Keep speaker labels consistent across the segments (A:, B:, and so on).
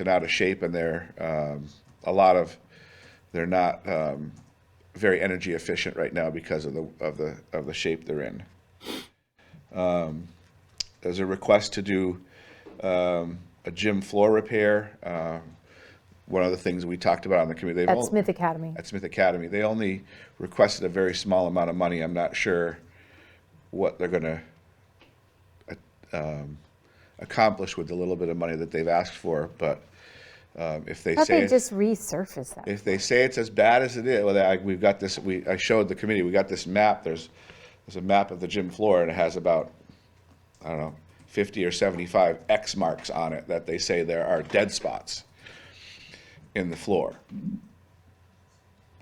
A: and out of shape and they're, um, a lot of, they're not, um, very energy efficient right now because of the, of the, of the shape they're in. Um, There's a request to do, um, a gym floor repair. Um, One of the things we talked about on the committee. they've
B: At
A: only-
B: Smith Academy.
A: at Smith Academy. They only requested a very small amount of money. I'm not sure what they're going to accomplish with the little bit of money that they've asked for. But um, if they
B: How
A: say
B: they just resurface that?
A: if they say it's as bad as it is, well, I, we've got this. We I showed the committee. We got this map. There's there's a map of the gym floor, and it has about I don't know 50 or 75 X marks on it that they say there are dead spots in the floor.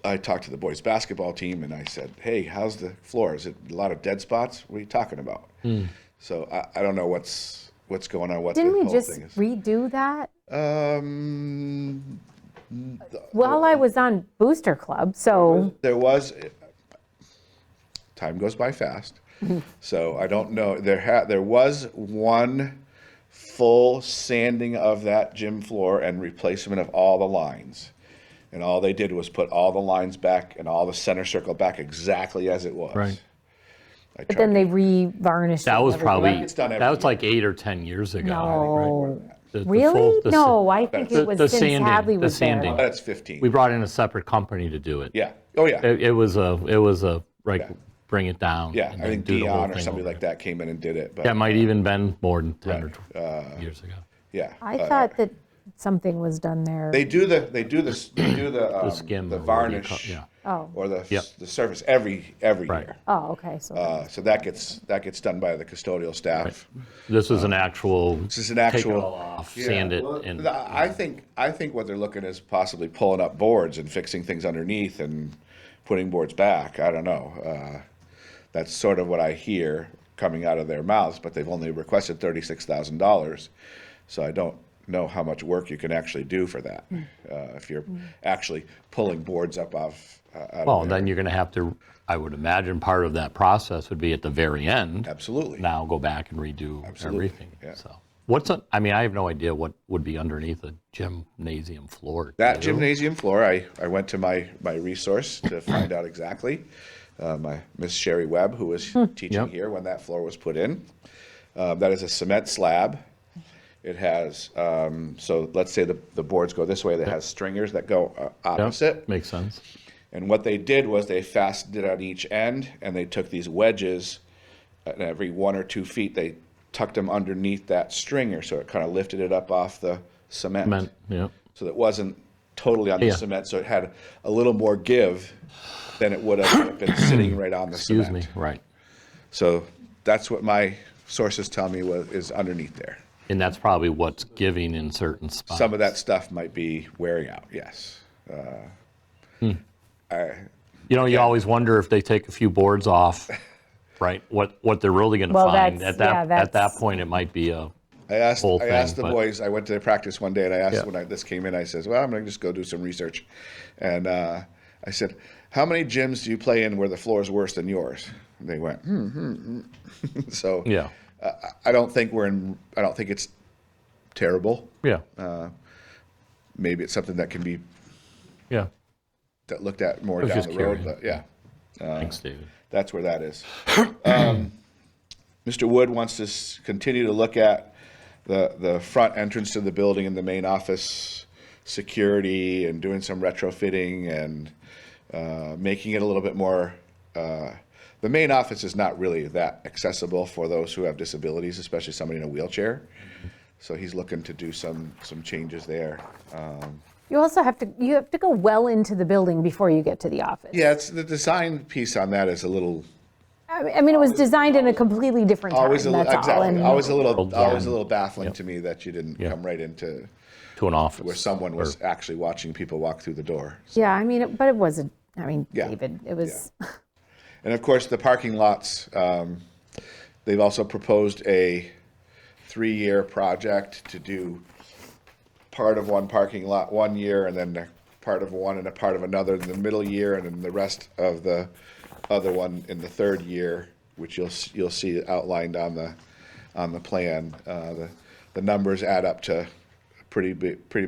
A: I talked to the boys basketball team and I said, "Hey, how's the floor? Is it a lot of dead spots? What are you talking about?" So I, I don't know what's what's going on. What
B: Didn't
A: the
B: we
A: whole
B: just
A: thing is.
B: redo that?
A: um,
B: Well, I was on Booster Club, so
A: There was, time goes by fast, so I don't know, there had, there was one full sanding of that gym floor and replacement of all the lines. And all they did was put all the lines back and all the center circle back exactly as it was.
C: Right.
A: I
B: but then
A: tried-
B: they re-varnished.
C: That
B: it
C: was
B: every-
C: probably,
A: It's done every
C: that was like eight or 10 years ago. right?
B: No,
C: The- the full-
B: really?
C: the sa-
B: No, I think
C: The-
B: it was
C: the
B: since
C: sanding,
B: Hadley
C: the
B: was there.
C: sanding.
A: That's fifteen.
C: We brought in a separate company to do it.
A: Yeah, oh, yeah,
C: It it was a, it was a, right, bring it down.
A: yeah,
C: and
A: I
C: then
A: think
C: do the whole
A: Dion or
C: thing
A: somebody
C: over.
A: like that came in and did it,
C: That
A: but,
C: might even been more than 10 or
A: Uh,
C: 12 years ago.
A: yeah.
B: I
A: Uh,
B: thought that something was done there.
A: They do the, they do the, they do the, um,
C: skim
A: the
C: or whatever you call-
A: varnish.
C: yeah.
B: Oh,
A: or the,
C: Yep.
A: the surface every, every
C: Right.
A: year.
B: oh, okay, so,
A: Uh, So that gets, that gets done by the custodial staff.
C: This is an actual. This
A: uh, is an
C: Take it
A: actual-
C: all off, sand it
A: Well,
C: and.
A: I I think, I think what they're looking is possibly pulling up boards and fixing things underneath and putting boards back. I don't know. Uh, That's sort of what I hear coming out of their mouths, but they've only requested thirty-six thousand dollars. So I don't know how much work you can actually do for that,
C: Hmm.
A: uh, if you're actually pulling boards up off. uh, out of
C: Well,
A: there.
C: then you're going to have to, I would imagine part of that process would be at the very end.
A: Absolutely.
C: Now go back and redo everything,
A: yeah.
C: so. What's, a- I mean, I have no idea what would be underneath a gymnasium floor.
A: That
C: Do you?
A: gymnasium floor, I, I went to my, my resource to find out exactly. Uh, my Miss Sherry Webb, who was teaching
C: Hmm. Yep.
A: here when that floor was put in. Uh, that is a cement slab. It has, um, so let's say the, the boards go this way, that has stringers that go uh,
C: Yep,
A: opposite.
C: Makes sense.
A: And what they did was they fastened it on each end and they took these wedges uh, and every one or two feet, they tucked them underneath that stringer. So it kind of lifted it up off the
C: Meant, yeah.
A: so that wasn't totally on the
C: Yeah.
A: cement, so it had a little more give than it would have been sitting right on the
C: Excuse
A: cement.
C: me, right.
A: So that's what my sources tell me was, is underneath there.
C: And that's probably what's giving in certain spots.
A: Some of that stuff might be wearing out, yes.
C: You know, you always wonder if they take a few boards off, right? What, what they're really going to
B: Well,
C: find.
B: that's-
C: At
B: yeah,
C: that, at that
B: that's-
C: point, it might be a,
A: I asked,
C: Whole
A: I asked
C: thing,
A: the
C: but-
A: boys, I went to their practice one day and I asked
C: Yeah.
A: when I, this came in, I says, well, I'm gonna just go do some research. And, uh, I said, how many gyms do you play in where the floor is worse than yours? And they went, hmm, hmm, hmm. So.
C: yeah,
A: I- I don't think we're in, I don't think it's terrible.
C: yeah,
A: Maybe it's something that can be
C: yeah.
A: that looked at more
C: was
A: down
C: just
A: the road,
C: curious.
A: but yeah, Uh,
C: Thanks, David.
A: that's where that is. um, Mr. Wood wants to s- continue to look at the, the front entrance to the building and the main office security and doing some retrofitting and uh, making it a little bit more. Uh, the main office is not really that accessible for those who have disabilities, especially somebody in a wheelchair. So he's looking to do some some changes there.
B: you also have to, you have to go well into the building before you get to the office.
A: Yeah, it's the design piece on that is a little
B: I I mean, it was designed in a completely different time,
A: always a little
B: that's all.
A: exactly
B: and-
A: always a little
C: World
A: always a
C: zone.
A: little baffling to me that you didn't
C: Yeah.
A: come right into
C: To an office.
A: where someone was actually watching people walk through the door.
B: Yeah, I mean, it- but it wasn't, I mean,
A: Yeah.
B: David, it was,
A: And of course, the parking lots. Um, they've also proposed a three-year project to do part of one parking lot one year, and then a part of one and a part of another in the middle year, and then the rest of the other one in the third year, which you'll s- you'll see outlined on the on the plan. Uh, the the numbers add up to a pretty big, pretty